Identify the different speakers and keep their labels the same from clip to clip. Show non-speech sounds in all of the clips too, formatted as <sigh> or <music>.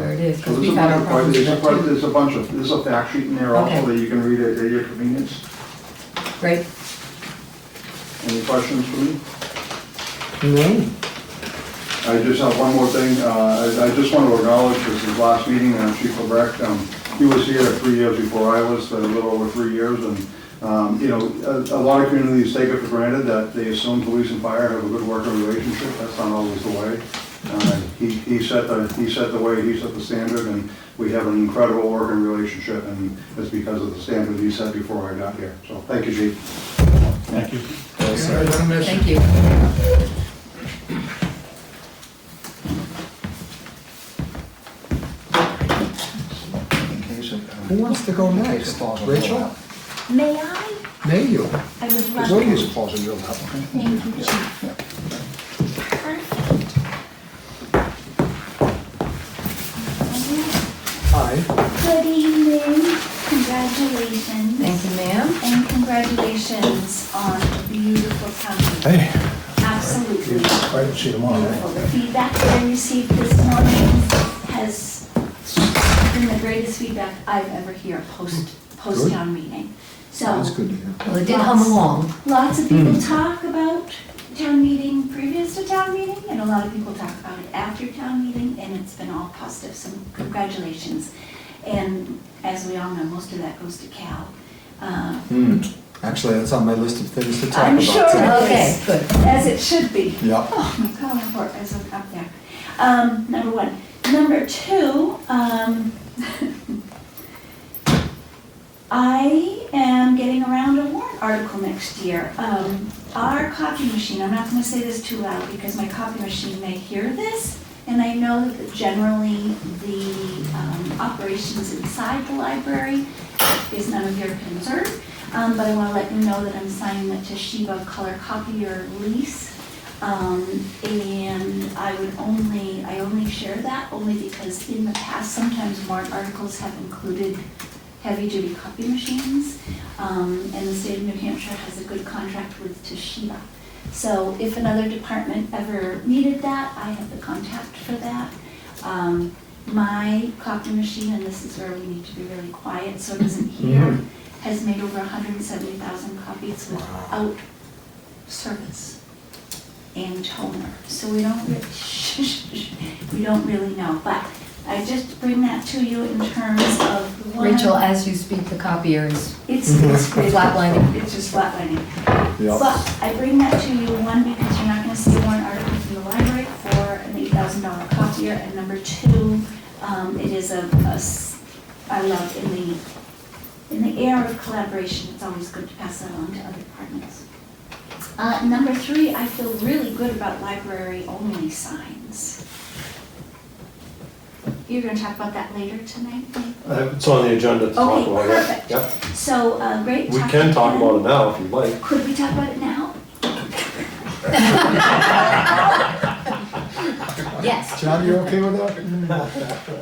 Speaker 1: is, because
Speaker 2: There's
Speaker 1: we've
Speaker 2: a
Speaker 1: had our
Speaker 2: bunch of-
Speaker 1: problems with
Speaker 2: there's a
Speaker 1: that
Speaker 2: bunch-
Speaker 1: too.
Speaker 2: There's a bunch of, there's a fact sheet in there also
Speaker 1: Okay.
Speaker 2: that you can read at at your convenience.
Speaker 1: Great,
Speaker 2: Any questions for me?
Speaker 3: No.
Speaker 2: I just have one more thing. Uh, I I just want to acknowledge, this is last meeting, uh, Chief Lebrecht, um, he was here three years before I was, a little over three years, and, um, you know, a a lot of communities take it for granted that they assume police and fire have a good working relationship. That's not always the way. Uh, He he set the, he set the way, he set the standard, and we have an incredible working relationship, and it's because of the standard he set before I got here. So, thank you, Chief.
Speaker 4: Thank you.
Speaker 3: Sorry, don't miss it.
Speaker 1: thank you.
Speaker 3: Who wants to go next? Rachel?
Speaker 5: May I?
Speaker 3: May you?
Speaker 5: I would
Speaker 3: As
Speaker 5: love
Speaker 3: long
Speaker 5: to.
Speaker 3: as it falls in your lap.
Speaker 5: Thank you, Chief. Perfect.
Speaker 3: Hi.
Speaker 5: Good evening, congratulations,
Speaker 1: Thank you, ma'am.
Speaker 5: and congratulations on the beautiful company.
Speaker 3: Hey.
Speaker 5: Absolutely
Speaker 3: I didn't see them all,
Speaker 5: beautiful.
Speaker 3: right?
Speaker 5: The feedback that I received this morning has been the greatest feedback I've ever heard post, post-town meeting. So,
Speaker 3: Hmm. That's good to hear.
Speaker 1: Well, it did hum along.
Speaker 5: Lots of people talk about town meeting previous to town meeting, and a lot of people talk about it after town meeting, and it's been all positive, so congratulations. And as we all know, most of that goes to Cal. Uh,
Speaker 3: Hmm. Actually, that's on my list of things to talk
Speaker 5: I'm
Speaker 3: about.
Speaker 5: sure
Speaker 3: today.
Speaker 5: it
Speaker 1: Okay,
Speaker 5: is.
Speaker 1: good.
Speaker 5: As it should be.
Speaker 3: Yeah.
Speaker 5: Oh my God, I work as I'm up there. Um, number one. Number two, um, I am getting around a warrant article next year. Um, our copy machine, I'm not gonna say this too loud because my copy machine may hear this. And I know that generally the, um, operations inside the library is none of your concern. Um, but I wanna let you know that I'm signing the Toshiba color copier lease um, and I would only, I only share that only because in the past, sometimes warrant articles have included heavy-duty copy machines. Um, and the state of New Hampshire has a good contract with Toshiba. So if another department ever needed that, I have the contact for that. Um, my copy machine, and this is where we need to be really quiet so it doesn't hear, has made over hundred and seventy thousand copies without service and toner. So we don't, re- we don't really <laughs> know, but I just bring that to you in terms of one.
Speaker 1: Rachel, as you speak, the copier is
Speaker 5: It's, it's
Speaker 1: flatlining.
Speaker 5: It's just flatlining.
Speaker 3: Yeah.
Speaker 5: But I bring that to you, one, because you're not gonna see one article from the library for an eight thousand dollar copier, and number two, um, it is a a s I love in the, in the air of collaboration, it's always good to pass that on to other departments. Uh, number three, I feel really good about library-only signs. You're gonna talk about that later tonight, maybe?
Speaker 6: Uh, It's on the agenda to talk
Speaker 5: Okay,
Speaker 6: about it.
Speaker 5: perfect.
Speaker 6: Yep.
Speaker 5: So, uh, great.
Speaker 6: We can talk about it now if you'd like.
Speaker 5: Could we talk about it now?
Speaker 1: Yes.
Speaker 3: John, you okay with that?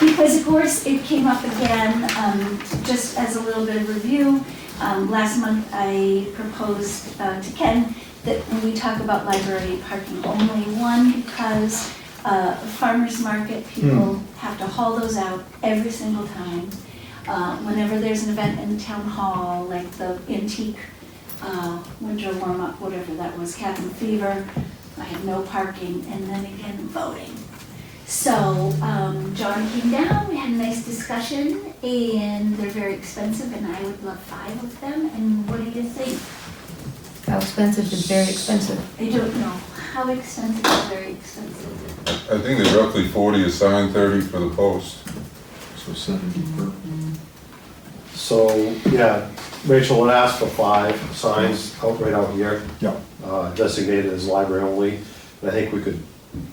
Speaker 5: Because of course, it came up again, um, just as a little bit of review. Um, last month, I proposed, uh, to Ken that when we talk about library parking only, one, because, uh, farmer's market, people have to haul those out every single time. Uh, whenever there's an event in town hall, like the antique, uh, winter warm-up, whatever that was, cabin fever, I had no parking, and then again, voting. So, um, John came down, we had a nice discussion, and they're very expensive, and I would love five of them, and what do you think?
Speaker 1: How expensive is very expensive.
Speaker 5: I don't know, how expensive is very expensive?
Speaker 7: I think they're roughly forty assigned, thirty for the post.
Speaker 3: So seventy per.
Speaker 6: So, yeah, Rachel had asked for five signs out right out here,
Speaker 3: Yeah.
Speaker 6: uh, designated as library only. And I think we could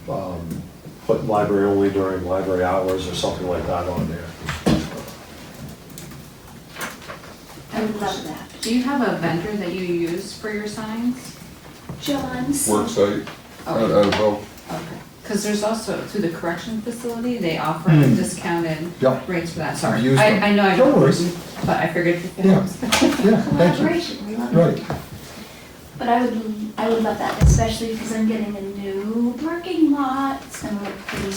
Speaker 6: um, put library only during library hours or something like that on there.
Speaker 5: I would love that.
Speaker 8: Do you have a vendor that you use for your signs?
Speaker 5: John's.
Speaker 7: Worksite, out
Speaker 8: Okay,
Speaker 7: out of hope.
Speaker 8: because there's also, through the correction facility, they offer discounted
Speaker 3: Yeah.
Speaker 8: rates for that,
Speaker 3: I've
Speaker 8: sorry.
Speaker 3: Hmm. used them.
Speaker 8: I, I know I
Speaker 3: No
Speaker 8: don't,
Speaker 3: worries.
Speaker 8: but I figured.
Speaker 3: Yeah. Yeah, thank you.
Speaker 5: Collaboration, we love it.
Speaker 3: Right.
Speaker 5: But I would, I would love that, especially because I'm getting a new parking lot, it's gonna look pretty